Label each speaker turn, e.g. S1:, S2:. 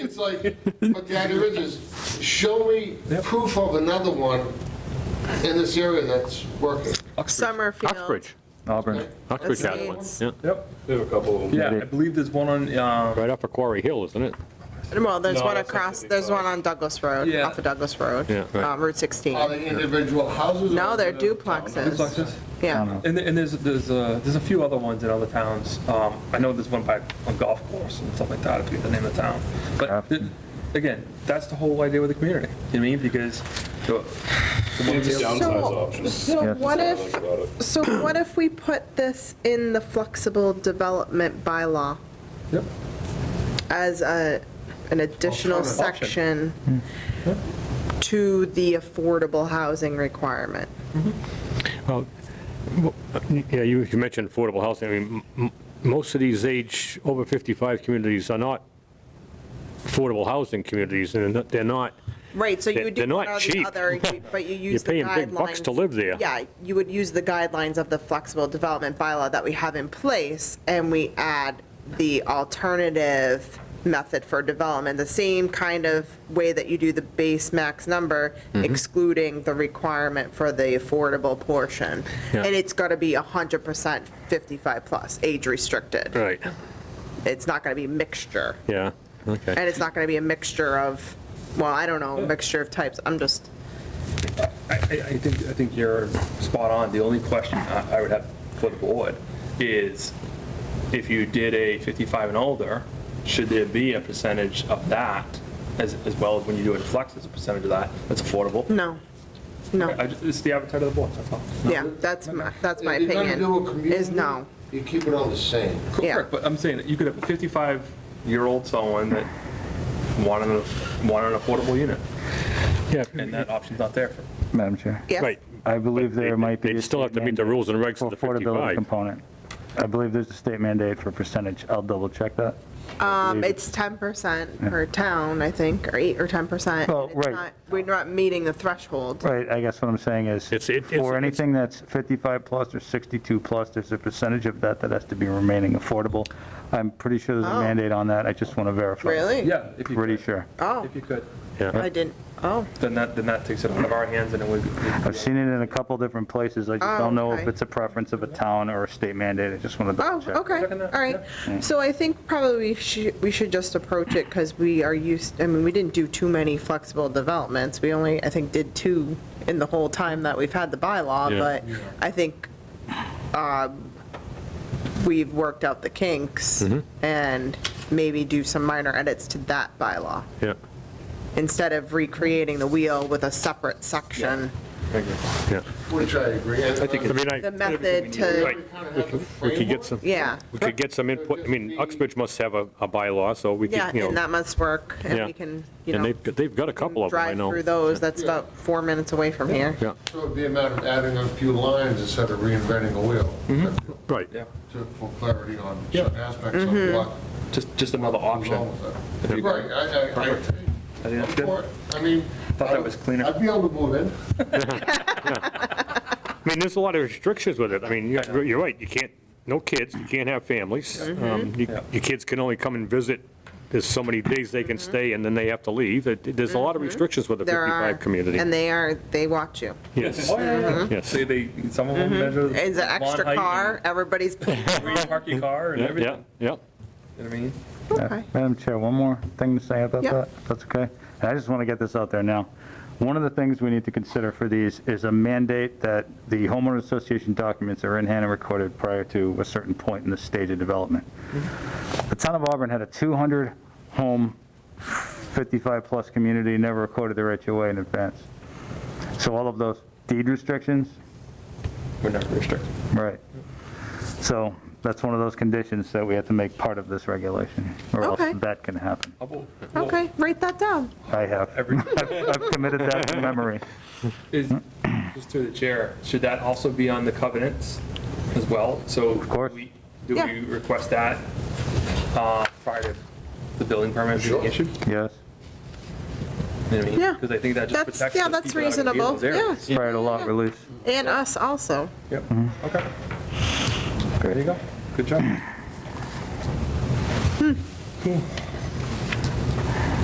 S1: like, what the idea is, is show me proof of another one in this area that's working.
S2: Summerfield.
S3: Uxbridge,
S4: Auburn.
S3: Uxbridge has one,
S2: Estates.
S3: yeah.
S5: Yep, we have a couple of them.
S4: Yeah, I believe there's one on, um,
S3: Right off of Quarry Hill, isn't it?
S2: Well, there's
S5: No,
S2: one
S5: that's not
S2: across,
S5: gonna be
S2: there's
S5: fine.
S2: one on Douglas Road,
S4: Yeah.
S2: off of Douglas Road,
S3: Yeah, right.
S2: um, Route 16.
S1: Are Oh, they individual houses? or
S2: No, they're
S1: is it a
S2: duplexes.
S4: duplexes.
S2: Yeah.
S4: I don't know. And, there- and there's, there's, uh, there's a few other ones in other towns. Um, I know there's one by a golf course and stuff like that, I forget the name of the town. But, th- again, that's the whole idea with the community, you know what I mean? Because the
S5: Maybe downsize
S2: So-
S5: options.
S2: So
S4: Yeah.
S2: what
S5: That's what I like
S2: if,
S5: about it.
S2: so what if we put this in the flexible development bylaw
S4: Yep.
S2: as a, an additional
S1: Alternative
S2: section
S5: Hmm.
S2: to the affordable housing requirement?
S3: Well, Yeah, you you mentioned affordable housing. I mean, m- m- most of these age over 55 communities are not affordable housing communities, and they're not- they're not,
S2: Right, so you
S3: They're-
S2: would do
S3: they're
S2: one
S3: not
S2: or the
S3: cheap.
S2: other, you- but you use the guidelines.
S3: paying big bucks to live there.
S2: Yeah, you would use the guidelines of the flexible development bylaw that we have in place, and we add the alternative method for development, the same kind of way that you do the base max number,
S3: Mm-hmm.
S2: excluding the requirement for the affordable portion.
S3: Yeah.
S2: And it's got to be 100% 55-plus, age-restricted.
S3: right,
S2: It's not going to be mixture.
S3: yeah, okay.
S2: And it's not going to be a mixture of, well, I don't know, mixture of types. I'm just,
S4: I, I I think, I think you're spot on. The only question I I would have for the board is if you did a 55 and older, should there be a percentage of that as, as well as when you do a flex, as a percentage of that that's affordable?
S2: no, no.
S4: I just- It's the appetite of the board, that's all.
S2: Yeah, that's, my- that's my
S1: If you're gonna do a
S2: opinion,
S1: community,
S2: is no.
S1: You keep it on the same.
S2: Yeah.
S4: Correct, but I'm saying that you could have a 55-year-old someone that wanted, a- wanted an affordable unit,
S3: Yeah,
S4: and that option's not there for.
S6: Madam Chair.
S2: Yes.
S3: right.
S6: I believe there
S3: They-
S6: might be.
S3: They'd
S6: a
S3: still have to
S6: state
S3: meet the
S6: mandate
S3: rules and regs
S6: for
S3: of the
S6: Affordability
S3: 55.
S6: component. I believe there's a state mandate for percentage. I'll double check that.
S2: Um, It's 10% per town, I think, or 8 or 10%.
S6: Well,
S2: and it's
S6: Oh, right.
S2: not- We're not meeting the threshold.
S6: Right, I guess what I'm saying is,
S3: It's- it- it's-
S6: for anything that's 55 plus or 62 plus, there's a percentage of that that has to be remaining affordable. I'm pretty sure there's a
S2: Oh.
S6: mandate on that. I just want to verify.
S2: Really?
S4: Yeah, if you
S6: Pretty
S4: could,
S6: sure.
S2: Oh,
S4: if you could,
S3: Yeah,
S2: I didn't, oh,
S4: then that, then that takes it out of our hands and it would be.
S6: I've seen it in a couple different places. I just
S2: Oh,
S6: don't know if
S2: okay.
S6: it's a preference of a town or a state mandate. I just want to double
S2: oh,
S6: check.
S2: okay,
S4: Checking that,
S2: all right. So I think probably we should, we should just approach it because we are used, I mean, we didn't do too many flexible developments. We only, I think, did two in the whole time that we've had the bylaw,
S3: Yeah.
S2: but I think um, we've worked out the kinks
S3: Mm-hmm.
S2: and maybe do some minor edits to that bylaw.
S3: yeah,
S2: instead of recreating the wheel with a separate section,
S3: yeah.
S1: Which I agree. I
S3: I mean, I,
S2: the method
S3: right,
S2: to,
S3: we could- we could get some,
S2: yeah,
S3: we could get some input. I mean, Uxbridge must have a a bylaw, so we
S2: yeah,
S3: could, you
S2: and
S3: know,
S2: that must work, and
S3: Yeah.
S2: we can, you
S3: and
S2: know,
S3: they've, they've got a couple of them, I
S2: drive
S3: know.
S2: through those, that's about four minutes away from here.
S3: Yeah,
S1: So it'd be a matter of adding a few lines instead of reinventing a wheel.
S3: right,
S4: Yeah,
S1: To- For clarity on
S4: Mm-hmm. Yeah.
S1: certain aspects
S2: Mm-hmm.
S1: of what
S4: just, just another
S1: goes
S4: option.
S1: on
S4: I
S1: with
S4: If
S1: it.
S4: you-
S1: Right, I, I, I
S4: Perfect.
S1: agree.
S4: think that's good.
S1: Or, I mean.
S4: Thought that was cleaner.
S1: I'd be able to move in.
S3: I mean, there's a lot of restrictions with it. I mean, you're you're right, you can't, no kids, you can't have families.
S2: Mm-hmm.
S3: Um, you-
S4: Yeah.
S3: Your kids can only come and visit, there's so many days they can stay, and then they have to leave. It- it- There's a lot of restrictions with the
S2: Mm-hmm. There are,
S3: 55 community.
S2: and they are, they watch you.
S3: Yes,
S4: Oh, yeah, yeah.
S3: Yes.
S4: Say they, some of them measure.
S2: Uh-huh. Mm-hmm. It's an
S4: lawn
S2: extra
S4: height
S2: car, everybody's,
S4: and Where you park your car and
S3: yeah, yeah,
S4: everything,
S3: yeah.
S4: you know what I mean?
S2: okay,
S6: Madam Chair, one more thing to say about
S2: Yeah.
S6: that, if that's okay? And I just want to get this out there now. One of the things we need to consider for these is a mandate that the homeowner association documents are in hand and recorded prior to a certain point in the stage of development. The town of Auburn had a 200-home, 55-plus community, never recorded their HOA in advance. So all of those deed restrictions,
S4: We're not restricted.
S6: right. So that's one of those conditions that we have to make part of this regulation, or else
S2: Okay.
S6: that can happen.
S4: How about- well,
S2: okay, write that down.
S6: I have.
S4: Every-
S6: I've committed that to memory.
S4: is- Just through the chair, should that also be on the covenants as well? So. Of
S6: course.
S4: Do
S2: Yeah.
S4: we request that uh, prior to the building permit being
S1: Sure.
S4: issued?
S6: Yes.
S2: Yeah.
S4: Because I think that just
S2: That's-
S4: protects.
S2: yeah,
S4: those people
S2: that's
S4: that are gonna be in
S2: reasonable,
S4: those areas.
S6: Prior to lot release.
S2: And us also.
S4: Yep, okay. There you go. Good job. Cool.